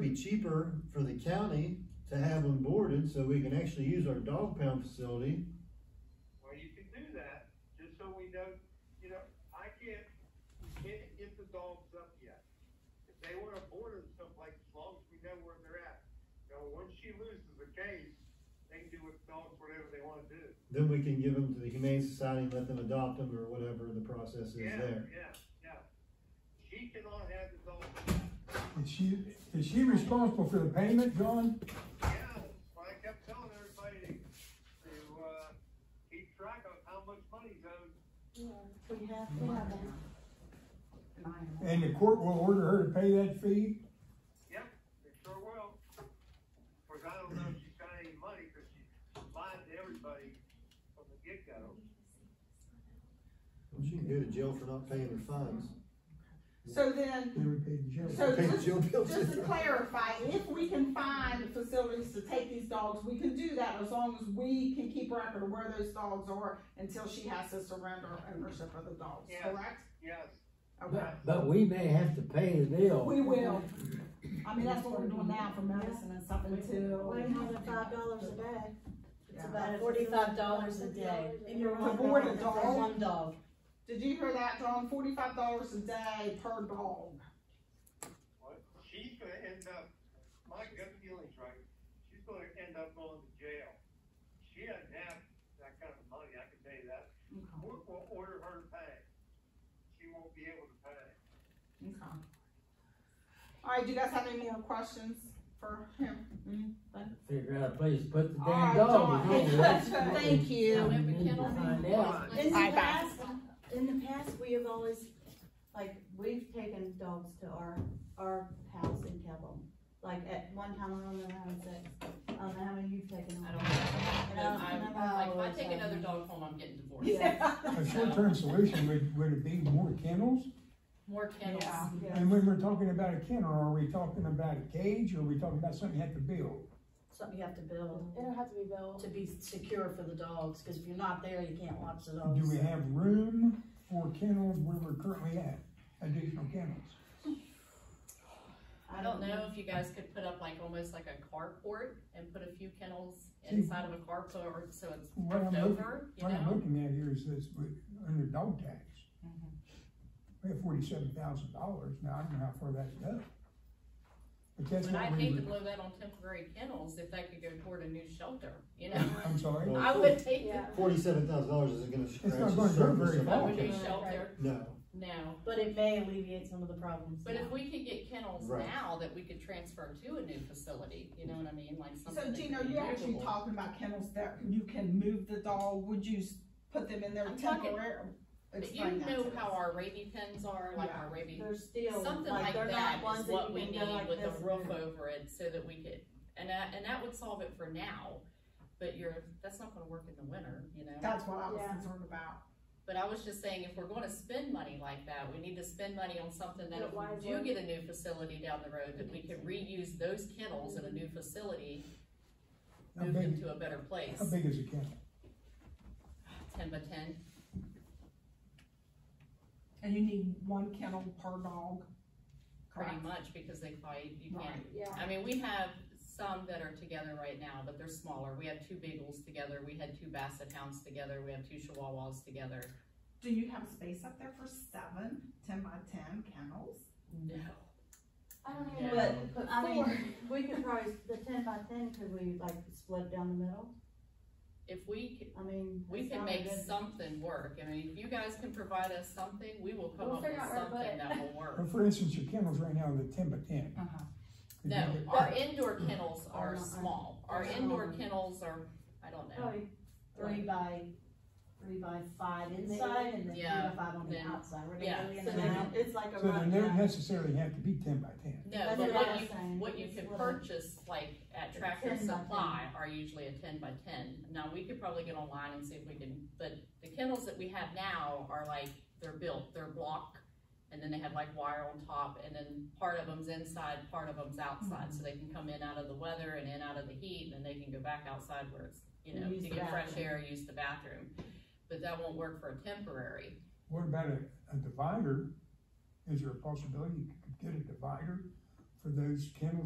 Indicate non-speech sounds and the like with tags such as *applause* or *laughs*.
be cheaper for the county to have them boarded, so we can actually use our dog pound facility. Well, you can do that, just so we know, you know, I can't, we can't get the dogs up yet. If they wanna board them someplace, as long as we know where they're at. Now, once she loses a case, they can do with dogs whatever they wanna do. Then we can give them to the Humane Society and let them adopt them or whatever the process is Yeah, there. Yeah, yeah. She cannot have the dogs, Is she, is she responsible for the payment, John? yeah, but I kept telling everybody to, to, uh, keep track of how much money's owed. Yeah, we have, we have them. And the court will order her to pay that fee? Yep, it sure will. Of course, I don't know if she's got any money, cause she lied to everybody from the get-go. She can go to jail for not paying her fines. So then, Never paid the so Pay just, jail bills. *laughs* just to clarify, if we can find facilities to take these dogs, we can do that as long as we can keep record of where those dogs are until she has to surrender ownership of the dogs, Yeah. correct? Yes, Okay, But, but we may have to pay the bill. we will. I mean, that's what we're doing now for medicine and stuff until. One hundred and five dollars a day. Yeah. about Forty-five dollars a day. And you're To on board that a for dog? one- One dog. Did you hear that, John? Forty-five dollars a day per dog. well, she's gonna end up, my gut feeling's right, she's gonna end up going to jail. She doesn't have that kind of money, I can tell you that. Court will order her to pay. She won't be able to pay. Okay. All right, do you guys have any more questions for him? Figure out a place to put the All right, damn dog. John. you know, *laughs* that's- Thank we you. need to find out. In the Bye-bye. past, in the past, we have always, Like, we've taken dogs to our, our house and kept them. Like, at one time, I don't remember how many six, I don't know how many you've taken. I don't know. No, I'm, no, like, if I no, take no. another dog home, I'm getting divorced. Yeah. A short-term solution would, would it be more kennels? *laughs* More kennels. Yeah. And when we're talking about a kennel, are we talking about a cage, or are we talking about something you have to build? Something you have to build it'll have to be built. to be secure for the dogs, cause if you're not there, you can't watch the dogs. Do we have room for kennels where we're currently at, additional kennels? I don't know if you guys could put up like almost like a carport and put a few kennels See- inside of a carport so it's What I'm flipped looking, over, you what I'm know? looking at here is this, we- under dog tax. We have forty-seven thousand dollars, now I don't know how far that goes. But that's And what I'd we hate to were, blow that on temporary kennels if that could go toward a new shelter, you know? I'm sorry, Well, I would take it Yeah. Forty-seven thousand dollars isn't gonna not scratch gonna the go surface very of of all a new this. Right. shelter, No, no. But it may alleviate some of the problems. But now. if we could get kennels Right. now that we could transfer to a new facility, you know what I mean, like something. So that Gino, could be you're actually movable. talking about kennels that you can move the dog, would you s- put them in there I'm talking- temporarily? But you know how our rabies pens are, like our rabies They're still, Something like, like they're that not ones is that what you we can need go like with this. a roof over it so that we could, and that, and that would solve it for now. But you're, that's not gonna work in the winter, you know? That's what I was Yeah. concerned about. But I was just saying, if we're gonna spend money like that, we need to spend money on something that But if why is we do it- get a new facility down the road, that we can reuse those kennels in a new facility, how move them big, to a better place, how big is a kennel? ten by ten. And you need one kennel per dog. pretty Correct. much because they fight, you can't. Right, yeah. I mean, we have some that are together right now, but they're smaller. We have two beagles together, we had two basset hounds together, we have two chihuahuas together. Do you have space up there for seven, ten by ten kennels? No. I don't even know But, what but I I mean, mean, *laughs* we could probably, the ten by ten, could we like split it down the middle? If we, c- I mean. we it's can not a make good- something work, I mean, if you guys can provide us something, we will come We'll up with figure out where to put something it. that will work. *laughs* Well, for instance, your kennels right now are the ten by ten. Could you Uh-huh. No, get- our indoor kennels Are are not- small. Our they're indoor small. kennels are, I don't Oh, know. Probably three by, three by five inside and then three Yeah, by five on the then- outside. We're gonna yeah, go in so and then- out. It's like a So they run. don't yeah. necessarily have to be ten by ten. No, That's but what I what was you, saying. what you It's could what I- purchase, like at Tractor 10 by 10. Supply, are usually a ten by ten. Now, we could probably get online and see if we can, but the kennels that we have now are like, they're built, they're block, and then they have like wire on top, and then part of them's inside, part of them's Mm-hmm. outside, so they can come in out of the weather and in out of the heat, and then they can go back outside where it's, you know, Use to the get fresh bathroom. air, use the bathroom. But that won't work for a temporary. What about a, a divider? Is there a possibility you could get a divider for those kennels